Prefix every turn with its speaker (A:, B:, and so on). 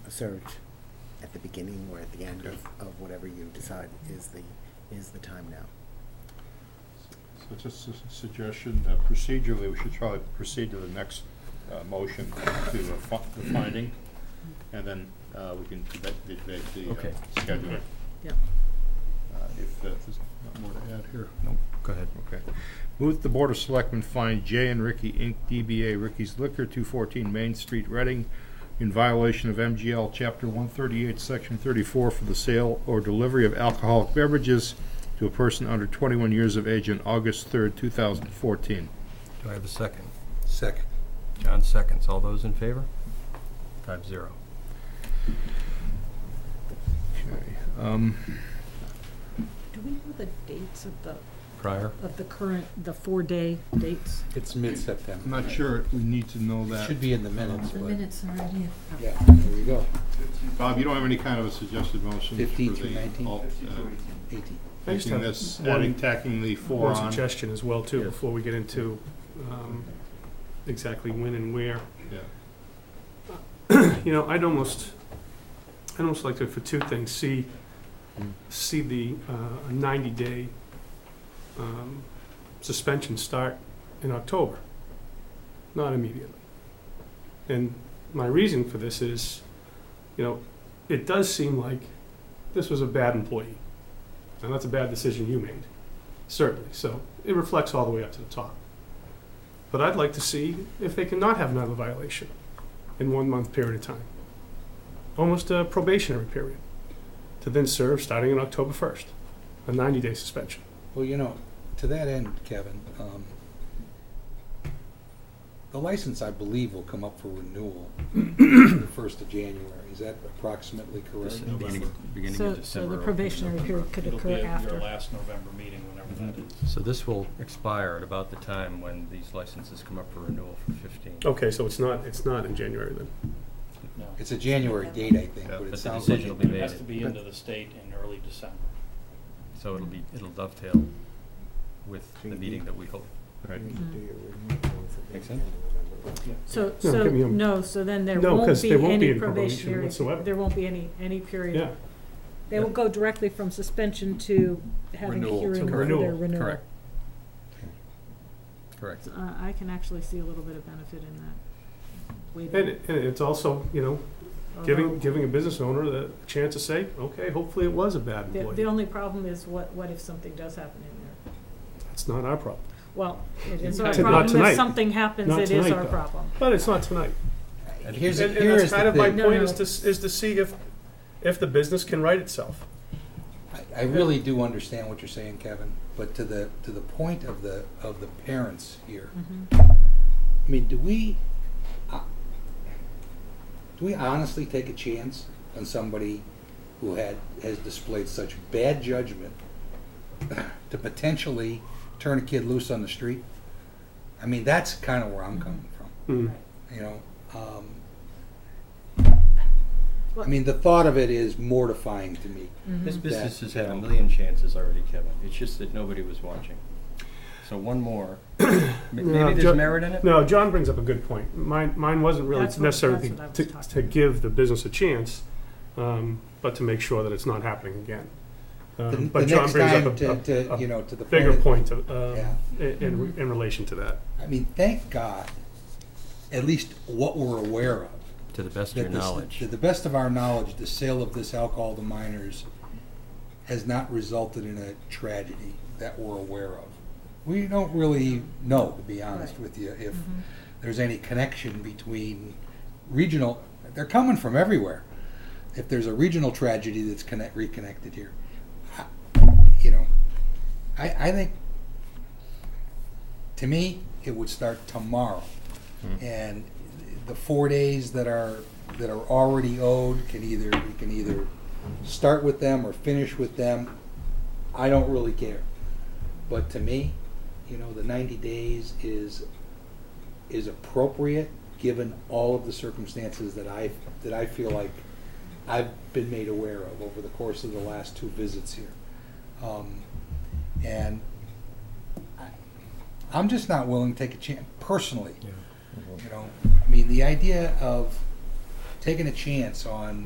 A: a surge at the beginning or at the end of, of whatever you decide is the, is the time now.
B: So just a s- suggestion, uh, procedurally, we should probably proceed to the next uh, motion to the fi- the finding, and then uh, we can debate debate the
C: Okay.
B: uh, schedule.
A: Yeah.
B: Uh, If uh, there's not more to add here.
C: No, go ahead.
B: Okay. Move that the Board of Selectmen find Jay and Ricky Inc., DBA Ricky's Liquor, 214 Main Street, Reading, in violation of MGL Chapter 138, Section 34 for the sale or delivery of alcoholic beverages to a person under 21 years of age on August 3rd, 2014.
C: Do I have a second?
D: Second.
C: John seconds. All those in favor? Five zero.
B: Okay, um,
E: Do we know the dates of the,
C: Prior?
E: of the current, the four-day dates?
D: It's mid-September.
B: I'm not sure we need to know
D: It
B: that.
D: Should be in the minutes,
F: The
D: but.
F: minutes are right here.
D: Yeah, there we go.
B: Bob, you don't have any kind of a suggested motion for
D: 15 through
B: the,
D: 19?
B: all, uh,
D: Eighteen.
G: I just
B: taking
G: have
B: this,
G: one-
B: adding, tacking the four
G: One
B: on?
G: suggestion as well, too,
B: Yeah.
G: before we get into um, exactly when and where.
B: Yeah.
G: You know, I'd almost, I'd almost like to, for two things, see, see the uh, ninety-day um, suspension start in October, not immediately. And my reason for this is, you know, it does seem like this was a bad employee. And that's a bad decision you made, certainly. So it reflects all the way up to the top. But I'd like to see if they cannot have another violation in one month period of time. Almost a probationary period to then serve starting on October 1st, a 90 day suspension.
D: Well, you know, to that end, Kevin, um, the license, I believe, will come up for renewal the first of January. Is that approximately correct?
C: Beginning
E: So- So the probationary period could
H: It'll be
E: occur
H: at your
E: after.
H: last November meeting, whenever that is.
C: So this will expire at about the time when these licenses come up for renewal for fifteen.
G: Okay, so it's not it's not in January then.
H: No.
D: It's a January date, I think,
B: Yeah,
D: but
C: but the
D: it sounds like.
C: decision will be
D: it-
H: It
C: made.
H: has to be into the state in early December.
C: So it'll be, it'll dovetail with the meeting that we hold.
B: Right.
A: You can do your renewals at the
C: Makes
A: end of November.
E: So,
G: No,
E: so,
G: give me a-
E: no, so then there
G: No,
E: won't
G: 'cause
E: be
G: there won't be
E: any
G: any probation
E: probationary,
G: whatsoever.
E: there won't be any, any period.
G: Yeah.
E: They will go directly from suspension to having a
D: Renewal,
E: hearing for their
G: correct.
E: renewal.
C: Correct. Correct.
E: Uh, I can actually see a little bit of benefit in that.
G: And,
E: Waiting.
G: it, and it's also, you know,
E: Uh-huh.
G: giving
E: Although,
G: giving a business owner the chance to say, okay, hopefully it was a bad
E: The, the
G: employee.
E: only problem is what, what if something does happen in there?
G: It's not our problem.
E: Well, it is our
G: Not
E: problem.
G: tonight.
E: If something happens,
G: Not
E: it is
G: tonight,
E: our
G: though.
E: problem.
G: But it's not tonight.
D: Here's,
G: And, and
D: here
G: that's
D: is
G: kind
D: the
G: of my
D: thing.
E: No,
G: point
E: no.
G: is to, s- is to see if, if the business can right itself.
D: I- I really do understand what you're saying, Kevin, but to the, to the point of the, of the parents here,
E: Mm-hmm.
D: I mean, do we, uh, do we honestly take a chance on somebody who had, has displayed such bad judgment to potentially turn a kid loose on the street? I mean, that's kind of where I'm coming from,
G: Hmm.
D: you know? Um, I mean, the thought of it is mortifying to me.
E: Mm-hmm.
C: This business
D: That,
C: has
D: you
C: had a
D: know-
C: million chances already, Kevin. It's just that nobody was watching. So one more. M- Maybe
G: Jo-
C: there's merit in it?
G: No, John brings up a good point. Mine, mine wasn't really
E: That's what-
G: necessarily
E: that's what I was
G: to,
E: talking
G: to
E: about.
G: give the business a chance, um, but to make sure that it's not happening again.
D: The,
G: Um,
D: the
G: But John
D: next
G: brings
D: time
G: up a-
D: to,
G: a,
D: to, you
G: a
D: know, to the
G: bigger
D: of-
G: point of, um,
D: Yeah.
G: in, in in relation to that.
D: I mean, thank God, at least what we're aware of.
C: To the best of
D: that
C: your
D: this-
C: knowledge.
D: To the best of our knowledge, the sale of this alcohol to minors has not resulted in a tragedy that we're aware of. We don't really know, to be honest with you, if there's any connection between regional, they're coming from everywhere. If there's a regional tragedy that's connect, reconnected here, I- you know, I, I think, to me, it would start tomorrow. And the four days that are, that are already owed can either, we can either start with them or finish with them. I don't really care. But to me, you know, the ninety days is, is appropriate, given all of the circumstances that I, that I feel like I've been made aware of over the course of the last two visits here. Um, And I, I'm just not willing to take a chance, personally. You know, I mean, the idea of taking a chance on